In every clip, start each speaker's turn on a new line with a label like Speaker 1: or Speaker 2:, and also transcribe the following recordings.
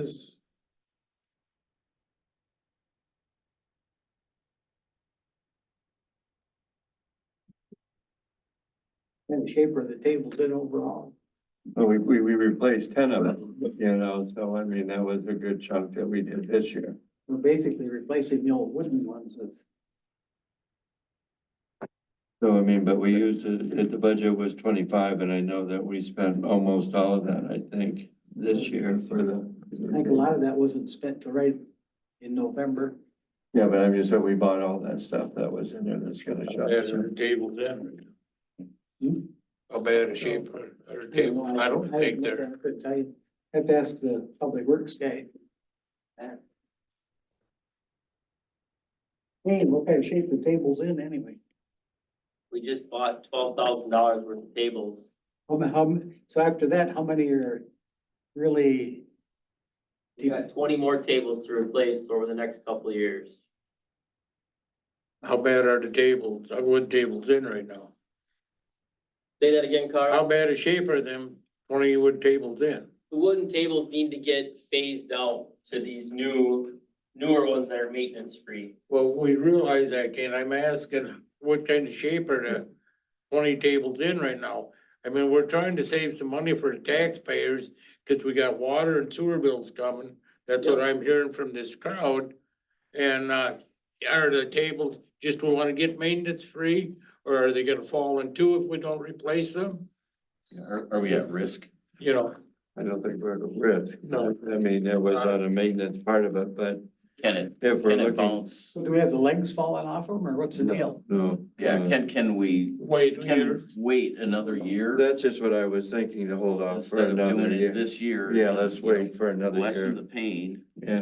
Speaker 1: is. And shape of the table did overall.
Speaker 2: Well, we, we, we replaced ten of them, you know, so I mean, that was a good chunk that we did this year.
Speaker 1: We're basically replacing the old wooden ones with.
Speaker 2: So I mean, but we used, it, it- the budget was twenty-five and I know that we spent almost all of that, I think, this year for the.
Speaker 1: I think a lot of that wasn't spent to right in November.
Speaker 2: Yeah, but I mean, so we bought all that stuff that was in there that's gonna shut.
Speaker 3: As our tables in.
Speaker 1: Hmm?
Speaker 3: How bad a shape are our tables? I don't think they're,
Speaker 1: I couldn't tell you. I have to ask the public works guy. that. Hey, what kind of shape the table's in anyway?
Speaker 4: We just bought twelve thousand dollars worth of tables.
Speaker 1: How, ma- how, m- so after that, how many are really?
Speaker 4: We got twenty more tables to replace over the next couple of years.
Speaker 3: how bad are the tables, our wood tables in right now?
Speaker 4: Say that again,
Speaker 3: How
Speaker 4: Carl.
Speaker 3: bad a shape are them twenty wood tables in?
Speaker 4: The wooden tables need to get phased out to these new, newer ones that are maintenance free.
Speaker 3: Well, we realize that, Ken, I'm asking what kind of shape are the twenty tables in right now? I mean, we're trying to save some money for the taxpayers, cause we got water and sewer bills coming. That's what I'm hearing from this crowd. And, uh, are the tables, just we wanna get maintenance free, or are they gonna fall in two if we don't replace them?
Speaker 5: Are, are we at risk?
Speaker 3: You know,
Speaker 2: I don't think we're at a risk.
Speaker 3: No.
Speaker 2: I mean, there was not a maintenance part of it, but
Speaker 5: Can it,
Speaker 2: if we're
Speaker 5: can it
Speaker 2: looking.
Speaker 5: bounce?
Speaker 1: So do we have the legs falling off them or what's the deal?
Speaker 2: No.
Speaker 5: Yeah,
Speaker 2: no.
Speaker 5: can, can we,
Speaker 3: wait,
Speaker 5: can wait another year?
Speaker 2: That's just what I was thinking to hold off for
Speaker 5: Instead of
Speaker 2: another
Speaker 5: doing it
Speaker 2: year.
Speaker 5: this year?
Speaker 2: Yeah,
Speaker 5: and,
Speaker 2: let's
Speaker 5: you know,
Speaker 2: wait for another
Speaker 5: Lessen
Speaker 2: year. Mm-hmm.
Speaker 5: the pain
Speaker 2: Yeah.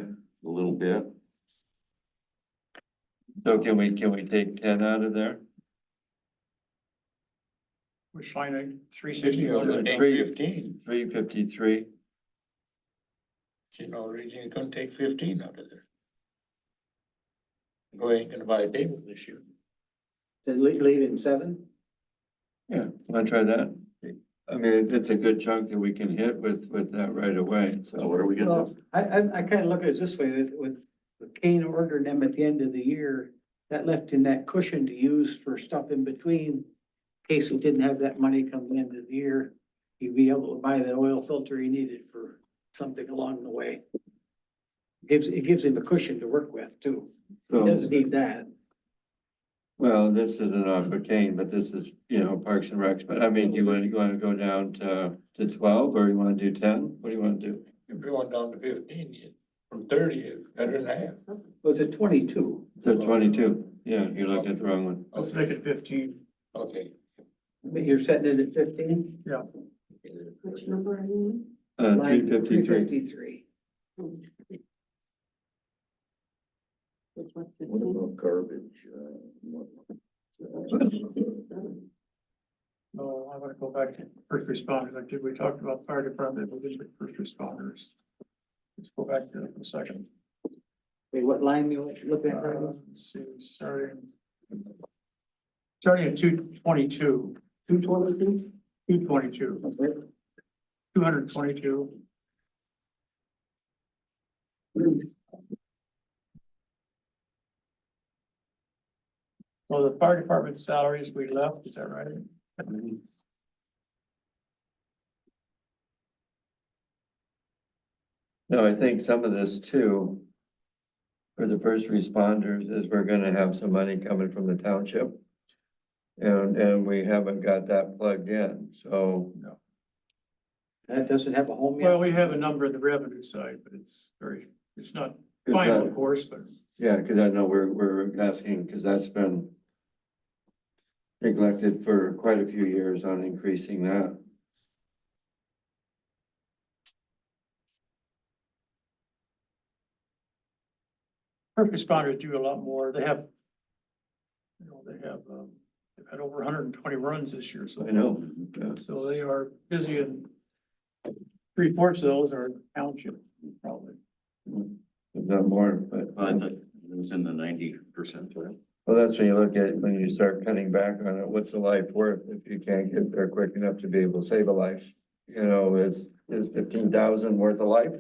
Speaker 5: a little bit.
Speaker 2: So can we, can we take ten out of there?
Speaker 6: Which line at three sixty?
Speaker 2: Three.
Speaker 3: take fifteen,
Speaker 2: Three fifty-three?
Speaker 3: you know, region, you couldn't take fifteen out of there. Go ain't gonna buy a table this year.
Speaker 1: To leave, leave it in seven?
Speaker 2: Yeah, wanna try that? I mean, it's a good chunk that we can hit with, with that right away,
Speaker 5: So
Speaker 2: so.
Speaker 5: what are we gonna,
Speaker 1: Well,
Speaker 5: do?
Speaker 1: I, I, I kind of look at it this way, with, with Kane ordering them at the end of the year, that left him that cushion to use for stuff in between. In case he didn't have that money come the end of the year, he'd be able to buy that oil filter he needed for something along the way. Gives, it gives him a cushion to work with too. He
Speaker 2: so-
Speaker 1: doesn't need that.
Speaker 2: Well, this isn't off of Kane, but this is, you know, Parks and Recs, but I mean, do you wanna, you wanna go down to, to twelve, or you wanna do ten? What do you wanna do?
Speaker 3: If you went down to fifteen, you, from thirty, it's better than half.
Speaker 1: Was it twenty-two?
Speaker 2: So twenty-two, yeah, you're looking at the wrong one.
Speaker 6: Let's make it fifteen.
Speaker 3: Okay.
Speaker 1: But you're setting it at fifteen?
Speaker 7: Which number are you
Speaker 2: Uh,
Speaker 1: Line
Speaker 2: three fifty-three,
Speaker 1: 353.
Speaker 7: in? Which one?
Speaker 2: about
Speaker 7: garbage?
Speaker 6: No, I want to go back to first responders. Like, did we talked about fire department, we did the first responders. Let's go back to the second.
Speaker 1: Wait, what line you looking at?
Speaker 6: Uh, Let's see, starting. Starting at two twenty-two,
Speaker 1: Two twenty-two?
Speaker 6: two twenty-two, two hundred and twenty-two. Well, the fire department salaries we left, is that right?
Speaker 2: no, I think some of this too. For the first responders is we're gonna have some money coming from the township. And, and we haven't got that plugged in, so.
Speaker 1: That doesn't have a home
Speaker 6: Well,
Speaker 1: yet.
Speaker 6: we have a number on the revenue side, but it's very, it's not
Speaker 2: Is
Speaker 6: final,
Speaker 2: that-
Speaker 6: of course, but
Speaker 2: Yeah, because I know we're, we're asking, because that's been neglected for quite a few years on increasing that.
Speaker 6: first responders do a lot more. They have, you know, they have, um, they've had over hundred and twenty runs this year, so.
Speaker 2: I know. yeah.
Speaker 6: So they are busy and three fourths of those are township, probably.
Speaker 2: If not more, but,
Speaker 5: Well, I thought it was in the ninety percent.
Speaker 2: well, that's when you look at, when you start cutting back on it, what's a life worth if you can't get there quick enough to be able to save a life? You know, is, is fifteen thousand worth a life?